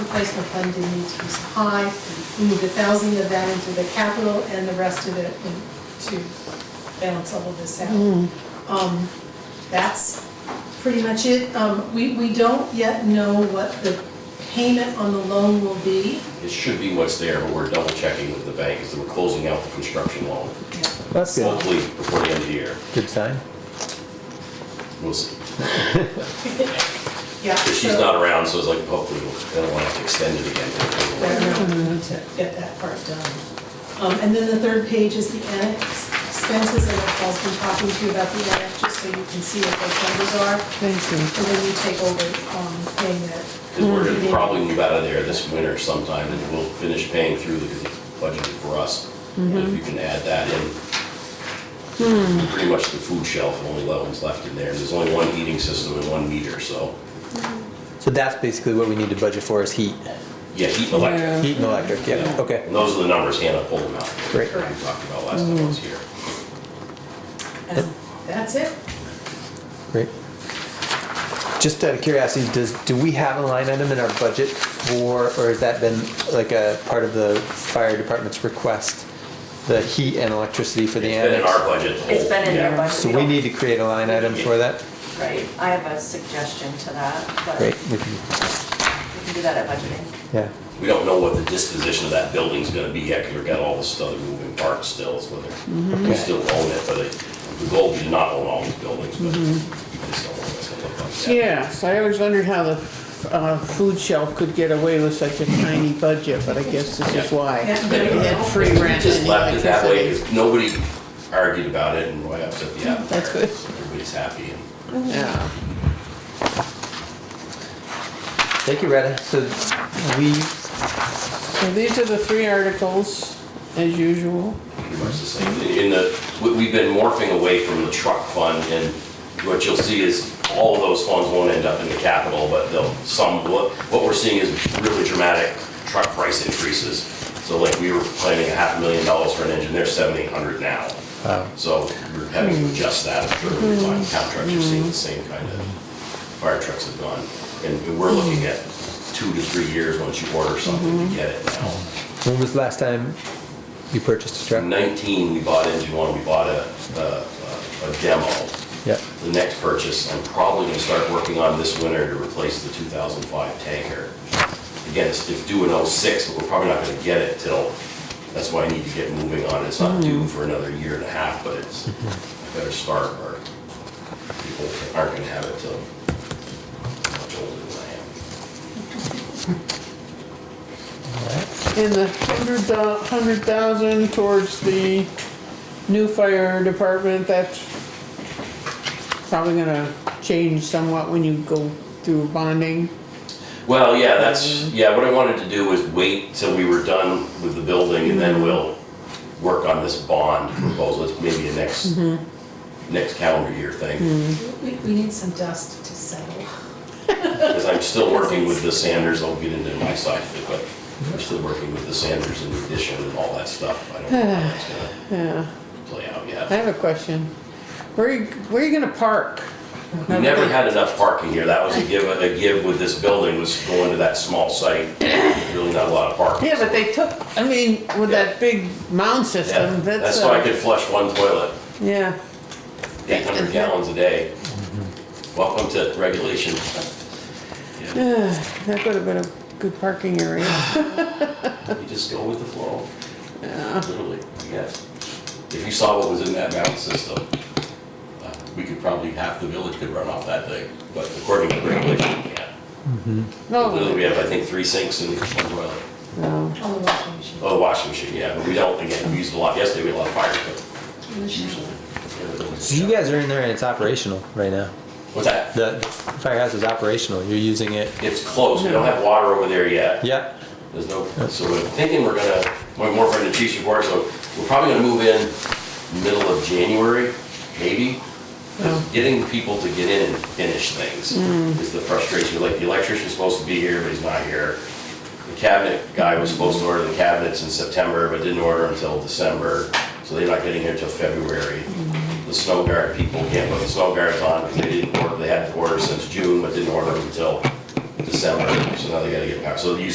replacement fund didn't need to be so high. We moved a thousand of that into the capital and the rest of it in- to balance all of this out. Um, That's pretty much it. Um, We, we don't yet know what the payment on the loan will be. It should be what's there, but we're double checking with the bank as we're closing out the construction loan, That's good. hopefully before the end of the year. Good sign. We'll see. Yeah, But she's so- not around, so it's like hopefully we'll, I don't want to have to extend it Right again. now, we need to get that part done. Um, And then the third page is the annex expenses, and Paul's been talking to you about the annex, just so you can see what those numbers are. Thank you. And then you take over um, paying that. Because we're going to probably move out of there this winter sometime and we'll finish paying through because it's budgeted for us. And if you can add that in, pretty much the food shelf, only loans left in there. And there's only one heating system and one meter, so, So that's basically what we need to budget for is heat, yeah, heat and electric. heat and electric. Yeah. Okay. And those are the numbers Hannah pulled them out. Great. We talked about last time I was here. And that's it. Great. Just out of curiosity, does do we have a line item in our budget for, or has that been like a part of the fire department's request? The heat and electricity for the It's been in annex. our budget. the It's whole- been in yeah. your budget. So we need to create a line item for that. Right, I have a suggestion to that, but Great. We we can, can do that at budgeting. yeah. We don't know what the disposition of that building's gonna be yet, because we've got all this other moving parts still, so whether we Okay. still own it, but it- the goal is not own all these buildings, but Mm-hmm. we just don't know what it's gonna look like. yet. Yes, I always wondered how the uh, food shelf could get away with such a tiny budget, but I guess this is why. Yeah. They had free We rent just and left it that way, electricity. 'cause nobody argued about it, and why upset the apple That's cart. good. Everybody's happy, and Yeah. Thank you, Retta. So we, So these are the three articles, as usual. pretty much the same. In- In the, we- we've been morphing away from the truck fund, and what you'll see is all of those funds won't end up in the capital, but they'll, some, what, what we're seeing is really dramatic truck price increases. So like, we were planning a half a million dollars for an engine, they're seven, eight hundred now. So we're having to adjust that, I'm sure, we find contracts are seeing the same kind of, fire trucks have gone. And we're looking at two to three years once you order something to get it now. when was the last time you purchased a In truck? 19, we bought engine one, we bought a, a- a a demo. Yep. The next purchase, I'm probably gonna start working on this winter to replace the 2005 tanker. Again, it's it's due in '06, but we're probably not gonna get it till, that's why I need to get moving on it. It's not due for another year and a half, but it's, I better start or people aren't gonna have it till much older than I am. And the hundred thou- hundred thousand towards the new fire department, that's probably gonna change somewhat when you go through bonding. Well, yeah, that's, yeah, what I wanted to do was wait till we were done with the building and Mm-hmm. then we'll work on this bond proposal, it's maybe a next, Mm-hmm. next calendar year thing. We, we need some dust to settle. Because I'm still working with the Sanders, I'll get into my side of it, Mm-hmm. but I'm still working with the Sanders and the addition and all that stuff. I don't know how it's gonna Yeah, play out I yet. have a question. Where are you, where are you gonna park? We never had enough parking here, that was a give, a give with this building was going to that small site, really not a lot of parking. Yeah, but they took, I mean, with that big Yeah, mound system, that's, That's why I uh, could flush one toilet. yeah. 800 gallons a day. Welcome to regulation. Yeah, That would have been a good parking area. You just go with the flow. Literally, yes. If you saw what was in that mountain system, uh, we could probably, half the village could run off that thing, but according to regulation, you can't. Oh. Literally, No, we have, I think, three sinks and one toilet. no. On the washing machine. Oh, washing machine, yeah, but we don't, again, we used a lot yesterday, we had a lot of fires, but In the shower. usually. everything was So you shut. guys are in there and it's operational right now. What's that? The firehouse is operational. You're using it. It's closed, we don't have water over there yet. Yep. There's no, so we're thinking we're gonna, we're more from the chief's report, so we're probably gonna move in middle of January, maybe. 'Cause Getting people to get in and finish things is the frustration, like the electrician's supposed to be here, but he's not here. The cabinet guy was supposed to order the cabinets in September, but didn't order until December, so they're not getting here until February. The snow guard, people can't put the snow guards on because they didn't order, they had to order since June, but didn't order them until December, so now they gotta get back, so you